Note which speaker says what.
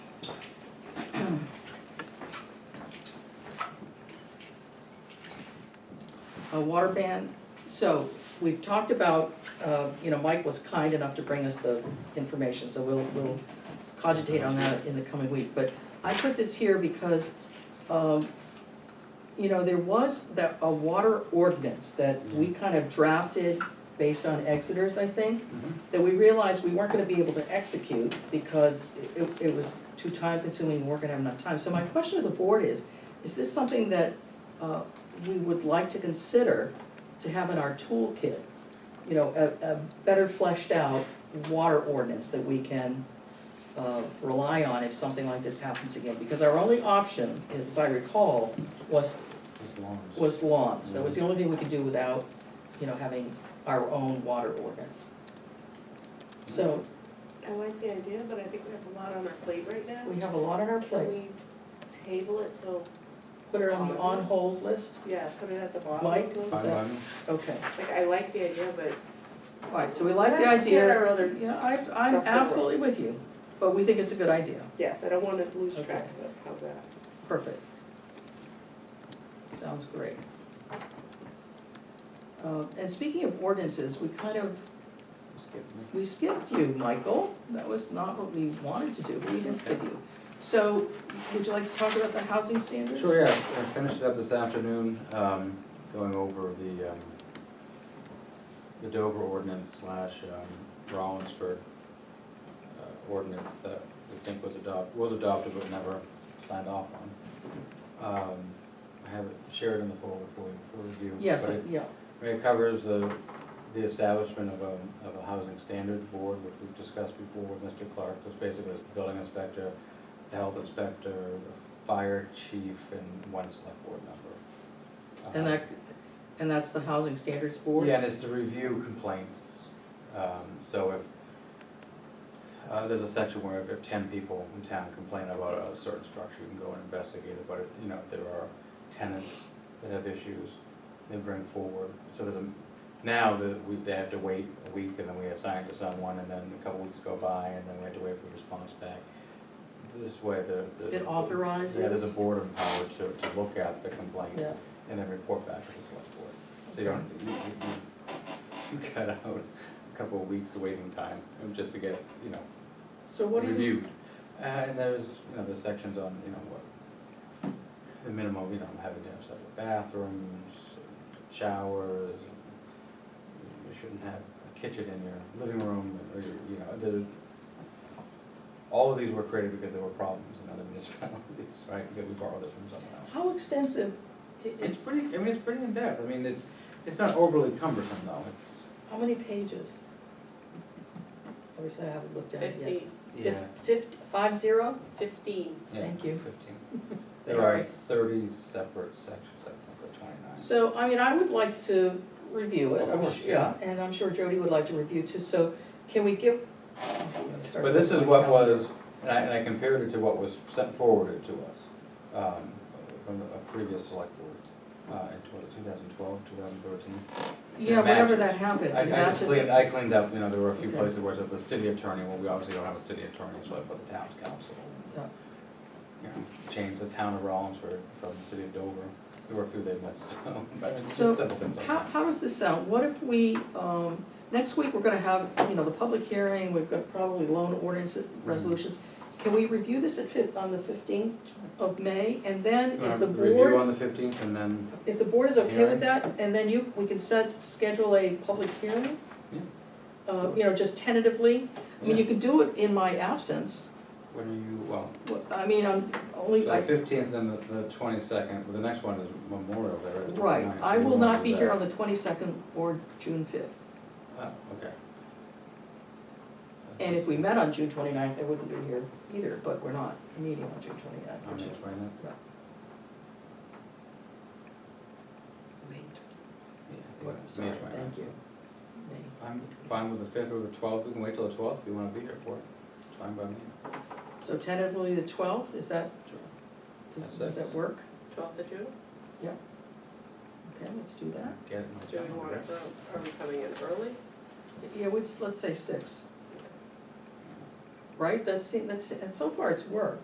Speaker 1: A water ban, so we've talked about, uh, you know, Mike was kind enough to bring us the information, so we'll, we'll cogitate on that in the coming week, but I put this here because, um, you know, there was that, a water ordinance that we kind of drafted based on Exeter's, I think, that we realized we weren't gonna be able to execute because it, it was too time consuming, we weren't gonna have enough time. So my question to the board is, is this something that, uh, we would like to consider to have in our toolkit? You know, a, a better fleshed out water ordinance that we can, uh, rely on if something like this happens again? Because our only option, as I recall, was
Speaker 2: As long as-
Speaker 1: was lawns, that was the only thing we could do without, you know, having our own water ordinance. So,
Speaker 3: I like the idea, but I think we have a lot on our plate right now.
Speaker 1: we have a lot on our
Speaker 3: Can
Speaker 1: plate,
Speaker 3: we table it till,
Speaker 1: put it on the on-hold list,
Speaker 3: yeah, put it at the bottom?
Speaker 1: Mike?
Speaker 3: Like,
Speaker 2: Five eleven?
Speaker 1: okay,
Speaker 3: I like the idea, but.
Speaker 1: alright, so we like the
Speaker 3: Let's get
Speaker 1: idea,
Speaker 3: our other,
Speaker 1: yeah, I, I'm
Speaker 3: That's the
Speaker 1: absolutely with you, but we think it's a good idea,
Speaker 3: yes, I don't wanna lose
Speaker 1: Okay.
Speaker 3: track of it, how's that?
Speaker 1: perfect. Sounds great. Uh, and speaking of ordinances, we kind of,
Speaker 2: Skip me.
Speaker 1: we skipped you, Michael, that was not what we wanted to do, but we didn't skip you. So, would you like to talk about the housing standards?
Speaker 2: Sure, yeah, I finished it up this afternoon, um, going over the, um, the Dover ordinance slash, um, Rollinsford uh, ordinance that we think was adopt, was adopted but never signed off on. Um, I have it shared in the folder for you, for review.
Speaker 1: Yes,
Speaker 2: but
Speaker 1: I-
Speaker 2: it-
Speaker 1: yeah,
Speaker 2: I mean, It covers the, the establishment of a, of a housing standards board, which we've discussed before with Mr. Clark, just basically it's the building inspector, the health inspector, the fire chief, and one select board member.
Speaker 1: and
Speaker 2: Uh,
Speaker 1: that, and that's the housing standards board?
Speaker 2: yeah, and it's to review complaints, um, so if, uh, there's a section where if ten people in town complain about a certain structure, you can go and investigate it, but if, you know, if there are tenants that have issues, they bring forward, so there's a, now that we, they have to wait a week, and then we assign it to someone, and then a couple weeks go by, and then we have to wait for a response back. This way, the, the.
Speaker 1: It authorizes?
Speaker 2: Yeah, there's a board empowered to, to look at the complaint
Speaker 1: Yeah,
Speaker 2: and then report back to the select board. So you
Speaker 1: Okay.
Speaker 2: don't, you, you, you- you cut out a couple of weeks of waiting time um, just to get, you know,
Speaker 1: so what do you,
Speaker 2: reviewed. Uh, and there's, you know, there's sections on, you know, what, the minimum, you know, having to have separate bathrooms, showers. and You shouldn't have a kitchen in your living room, or, your- you know, the, all of these were created because there were problems in other municipalities, right? Because we borrowed this from someone else.
Speaker 1: how extensive, i- i-
Speaker 2: It's pretty, I mean, it's pretty in-depth, I mean, it's, it's not overly cumbersome though,
Speaker 1: how many pages? Obviously, I haven't looked at it yet.
Speaker 3: Fifteen,
Speaker 2: it's.
Speaker 1: Fif- five zero?
Speaker 3: fifteen,
Speaker 1: Thank you.
Speaker 2: Fifteen. There are
Speaker 1: Sorry.
Speaker 2: thirty separate sections, I think, or twenty-nine.
Speaker 1: So, I mean, I would like to review it,
Speaker 2: Of
Speaker 1: I'm
Speaker 2: course,
Speaker 1: su- yeah, and I'm sure Jody would like to review too, so can we give?
Speaker 2: But this is what was, and I, and I compared it to what was sent forwarded to us, um, from a previous select board, uh, in tw- 2012, 2013.
Speaker 1: Yeah, whatever
Speaker 2: matches.
Speaker 1: that happened,
Speaker 2: I,
Speaker 1: it
Speaker 2: I just
Speaker 1: matches.
Speaker 2: cleaned, I cleaned up, you know, there were a few
Speaker 1: Okay.
Speaker 2: places where it said the city attorney, well, we obviously don't have a city attorney, so I put the town's council.
Speaker 1: Yeah.
Speaker 2: You know, change the town of Rollinsford from the city of Dover, there were a few they missed, so, but it's
Speaker 1: So,
Speaker 2: just simple things like
Speaker 1: How,
Speaker 2: that.
Speaker 1: how does this sound? What if we, um, next week, we're gonna have, you know, the public hearing, we've got probably loan ordinance
Speaker 2: Mm-hmm.
Speaker 1: resolutions. Can we review this at fif, on the fifteenth of May, and then
Speaker 2: You wanna
Speaker 1: if the
Speaker 2: Review
Speaker 1: board,
Speaker 2: on the fifteenth and then,
Speaker 1: if the board is okay
Speaker 2: Hearing.
Speaker 1: with that, and then you, we can set, schedule a public hearing?
Speaker 2: Yeah.
Speaker 1: Uh, you know, just tentatively, I mean, you
Speaker 2: yeah,
Speaker 1: can do it in my absence,
Speaker 2: when are you, well,
Speaker 1: What- I mean, I'm
Speaker 2: so
Speaker 1: only,
Speaker 2: the
Speaker 1: I,
Speaker 2: fifteenth and the, the twenty-second, well, the next one is Memorial Day, right? the
Speaker 1: right,
Speaker 2: 29th, so
Speaker 1: I
Speaker 2: we
Speaker 1: will
Speaker 2: won't
Speaker 1: not
Speaker 2: do
Speaker 1: be
Speaker 2: that.
Speaker 1: here on the twenty-second or June fifth.
Speaker 2: Oh, okay.
Speaker 1: And if we met on June 29th, I wouldn't be here either, but we're not meeting on June 29th,
Speaker 2: I'm
Speaker 1: which is,
Speaker 2: just writing it. Yeah,
Speaker 1: what,
Speaker 2: May
Speaker 1: sorry,
Speaker 2: 29th.
Speaker 1: thank you. May.
Speaker 2: I'm fine with the fifth or the twelfth, we can wait till the twelfth if you wanna be here for it, it's fine by me.
Speaker 1: So tentatively the 12th, is that, does-
Speaker 2: That's
Speaker 1: does that
Speaker 2: six.
Speaker 1: work?
Speaker 3: twelfth of June?
Speaker 1: Okay, let's do that.
Speaker 2: Get it, my
Speaker 3: Do we
Speaker 2: son,
Speaker 3: want it,
Speaker 2: right?
Speaker 3: early? are we coming in early?
Speaker 1: Yeah, we'd, let's say 6. Right, that's, that's, so far it's worked.